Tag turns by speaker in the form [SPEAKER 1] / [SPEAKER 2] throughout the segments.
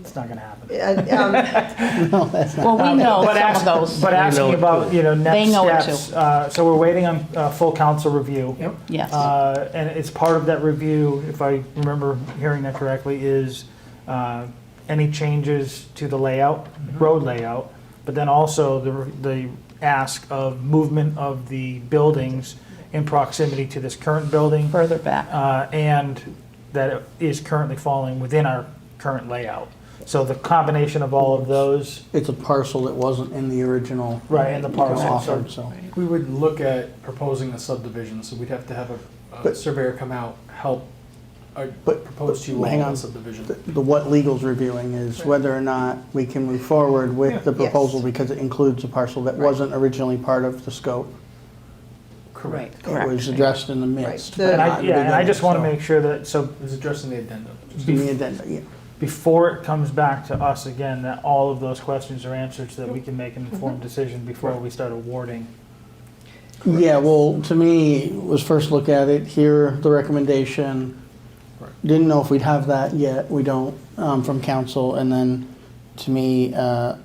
[SPEAKER 1] It's not going to happen.
[SPEAKER 2] Uh, um,
[SPEAKER 3] No, that's not.
[SPEAKER 4] Well, we know
[SPEAKER 1] But
[SPEAKER 4] some of
[SPEAKER 1] ask-
[SPEAKER 4] those.
[SPEAKER 1] But
[SPEAKER 3] know
[SPEAKER 1] asking
[SPEAKER 3] it
[SPEAKER 1] about, you know,
[SPEAKER 4] They
[SPEAKER 1] next
[SPEAKER 4] know it
[SPEAKER 1] steps. uh, So we're waiting on uh, full council review.
[SPEAKER 5] Yep.
[SPEAKER 4] Yes.
[SPEAKER 1] Uh, And it's part of that review, if I remember hearing that correctly, is uh, any changes to the layout, road layout, but then also the, the ask of movement of the buildings in proximity to this current building,
[SPEAKER 4] further back.
[SPEAKER 1] uh, and that it is currently falling within our current layout. So the combination of all of those,
[SPEAKER 3] It's a parcel that wasn't in the original
[SPEAKER 1] right, and the
[SPEAKER 3] you know,
[SPEAKER 1] parcel, so
[SPEAKER 3] offered, so.
[SPEAKER 5] We would look at proposing a subdivision, so we'd have to have a, a
[SPEAKER 3] But-
[SPEAKER 5] surveyor come out, help, uh,
[SPEAKER 3] But-
[SPEAKER 5] propose to you
[SPEAKER 3] but hang
[SPEAKER 5] all a
[SPEAKER 3] on.
[SPEAKER 5] subdivision.
[SPEAKER 3] The the what legal's reviewing is whether or not we can move forward
[SPEAKER 5] Yeah.
[SPEAKER 3] with the proposal
[SPEAKER 2] Yes.
[SPEAKER 3] because it includes a parcel that wasn't originally part of the scope.
[SPEAKER 5] Correct.
[SPEAKER 3] It was addressed in the midst.
[SPEAKER 2] Right.
[SPEAKER 3] but
[SPEAKER 1] And I,
[SPEAKER 3] not in the
[SPEAKER 1] yeah, and I just want to
[SPEAKER 3] beginning,
[SPEAKER 1] make sure that, so
[SPEAKER 5] It was addressed in the addendum.
[SPEAKER 3] so- In the addenda, yeah.
[SPEAKER 1] before it comes back to us again, that all of those questions are answered so that we can make an informed decision before we start awarding.
[SPEAKER 3] Yeah, well, to me, was first look at it, hear the recommendation.
[SPEAKER 5] Right.
[SPEAKER 3] Didn't know if we'd have that yet, we don't, um, from council, and then, to me, uh,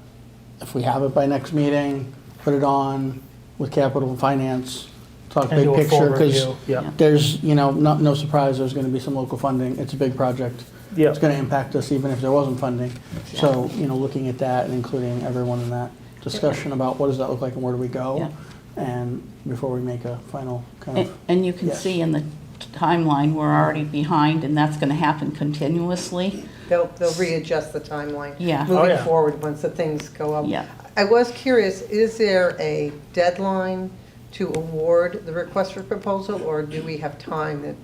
[SPEAKER 3] if we have it by next meeting, put it on with capital and finance, talk
[SPEAKER 1] And
[SPEAKER 3] big
[SPEAKER 1] do a full
[SPEAKER 3] picture, because
[SPEAKER 1] review. Yeah,
[SPEAKER 3] there's, you know, not, no surprise, there's gonna be some local funding, it's a big project.
[SPEAKER 1] yeah.
[SPEAKER 3] It's gonna impact us even if there wasn't funding, so, you know, looking at that and including everyone in that discussion about what does that look like and where do we go? And before we make a final kind
[SPEAKER 4] And-
[SPEAKER 3] of,
[SPEAKER 4] And you can
[SPEAKER 3] Yes.
[SPEAKER 4] see in the timeline, we're already behind, and that's going to happen continuously.
[SPEAKER 2] They'll, they'll readjust the timeline.
[SPEAKER 4] Yeah.
[SPEAKER 1] Oh,
[SPEAKER 2] Moving
[SPEAKER 1] yeah.
[SPEAKER 2] forward, once the things go up.
[SPEAKER 4] Yeah.
[SPEAKER 2] I was curious, is there a deadline to award the request for proposal, or do we have time that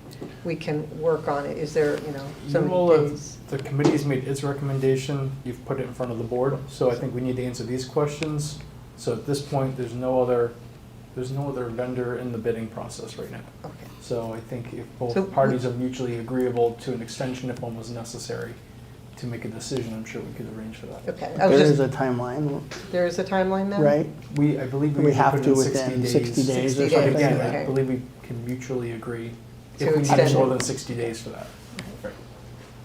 [SPEAKER 2] we can work on it? Is there, you know, so
[SPEAKER 5] Well,
[SPEAKER 2] many
[SPEAKER 5] uh,
[SPEAKER 2] days?
[SPEAKER 5] The committee's made its recommendation, you've put it in front of the board, so I think we need to answer these questions. So at this point, there's no other, there's no other vendor in the bidding process right now.
[SPEAKER 2] Okay.
[SPEAKER 5] So I think if
[SPEAKER 2] So-
[SPEAKER 5] both parties are mutually agreeable to an extension if one was necessary to make a decision, I'm sure we could arrange for that.
[SPEAKER 2] Okay, I
[SPEAKER 3] there
[SPEAKER 2] was
[SPEAKER 3] is
[SPEAKER 2] just,
[SPEAKER 3] a timeline,
[SPEAKER 2] there is a timeline then?
[SPEAKER 3] right?
[SPEAKER 5] We, I believe we
[SPEAKER 3] We
[SPEAKER 5] usually
[SPEAKER 3] have
[SPEAKER 5] put it
[SPEAKER 3] to
[SPEAKER 5] in sixty
[SPEAKER 3] within
[SPEAKER 5] days.
[SPEAKER 3] 60 days
[SPEAKER 2] or
[SPEAKER 5] But
[SPEAKER 2] something.
[SPEAKER 5] again,
[SPEAKER 2] Okay.
[SPEAKER 5] I believe we can mutually agree
[SPEAKER 2] To
[SPEAKER 5] if we
[SPEAKER 2] extend
[SPEAKER 5] need
[SPEAKER 2] it.
[SPEAKER 5] more than sixty days for that.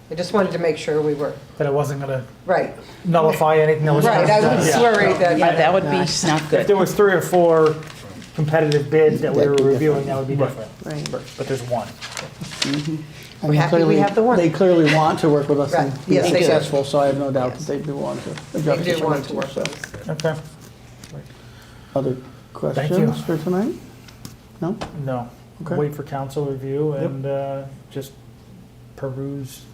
[SPEAKER 2] I just wanted to make sure we were,
[SPEAKER 1] That it wasn't going to
[SPEAKER 2] right,
[SPEAKER 1] nullify anything that was.
[SPEAKER 2] right, I
[SPEAKER 1] done.
[SPEAKER 2] was
[SPEAKER 1] Yeah.
[SPEAKER 2] worried that.
[SPEAKER 4] Yeah, that would be not
[SPEAKER 1] If
[SPEAKER 4] good.
[SPEAKER 1] there was three or four competitive bids that we were
[SPEAKER 3] That'd be
[SPEAKER 1] reviewing, that would be
[SPEAKER 5] Right.
[SPEAKER 1] different.
[SPEAKER 2] Right.
[SPEAKER 1] But there's one.
[SPEAKER 3] I
[SPEAKER 2] We're
[SPEAKER 3] mean,
[SPEAKER 2] happy we
[SPEAKER 3] clearly-
[SPEAKER 2] have the one.
[SPEAKER 3] They clearly want to work with us
[SPEAKER 2] Right.
[SPEAKER 3] and be
[SPEAKER 2] Yes, they do.
[SPEAKER 3] successful, so I have no doubt
[SPEAKER 2] Yes.
[SPEAKER 3] that they do want to.
[SPEAKER 2] They
[SPEAKER 3] adjust
[SPEAKER 2] do
[SPEAKER 3] this
[SPEAKER 2] want to
[SPEAKER 3] too,
[SPEAKER 2] work
[SPEAKER 3] so.
[SPEAKER 2] on this.
[SPEAKER 1] Okay.
[SPEAKER 3] Other questions for tonight? No?
[SPEAKER 1] No.
[SPEAKER 3] Okay.
[SPEAKER 1] Wait for council review and uh, just peruse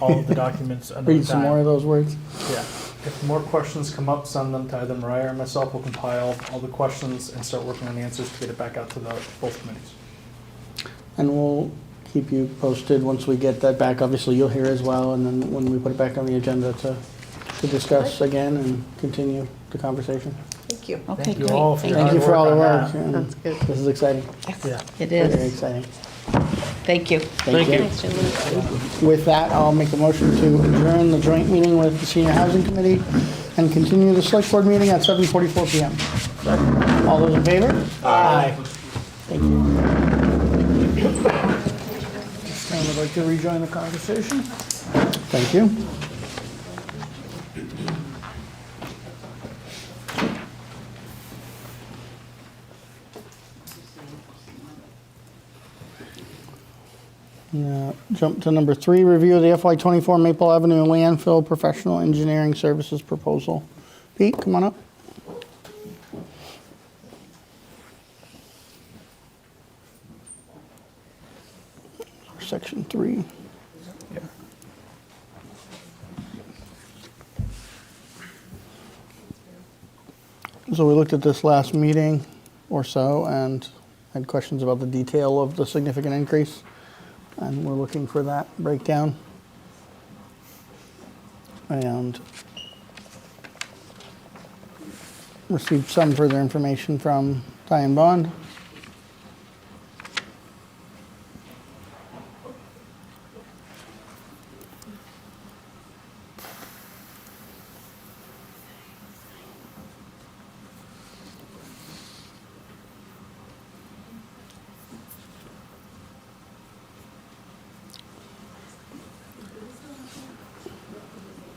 [SPEAKER 1] all of the documents another
[SPEAKER 3] Read some more
[SPEAKER 1] time.
[SPEAKER 3] of those words?
[SPEAKER 1] Yeah.
[SPEAKER 5] If more questions come up, send them to either Mariah or myself. We'll compile all the questions and start working on the answers to get it back out to the both committees.
[SPEAKER 3] And we'll keep you posted once we get that back. Obviously, you'll hear as well, and then when we put it back on the agenda to, to discuss again and continue the conversation.
[SPEAKER 2] Thank you.
[SPEAKER 4] Okay,
[SPEAKER 1] Thank
[SPEAKER 4] great.
[SPEAKER 1] you all for your
[SPEAKER 3] Thank you for all the
[SPEAKER 1] Hard
[SPEAKER 3] work.
[SPEAKER 1] work
[SPEAKER 3] and
[SPEAKER 2] That's good.
[SPEAKER 3] This is exciting,
[SPEAKER 1] Yeah.
[SPEAKER 4] It
[SPEAKER 3] very
[SPEAKER 4] is.
[SPEAKER 3] exciting.
[SPEAKER 4] Thank you.
[SPEAKER 3] Thank you. With that, I'll make a motion to adjourn the joint meeting with the Senior Housing Committee and continue the Select Board meeting at 7:44 PM. All those in favor? Aye. Thank you. And would like to rejoin the conversation? Thank you. Yeah, Jump to number three, review of the FY '24 Maple Avenue landfill professional engineering services proposal. Pete, come on up. Section three. So we looked at this last meeting or so and had questions about the detail of the significant increase. And we're looking for that breakdown. And received some further information from Diane Bond.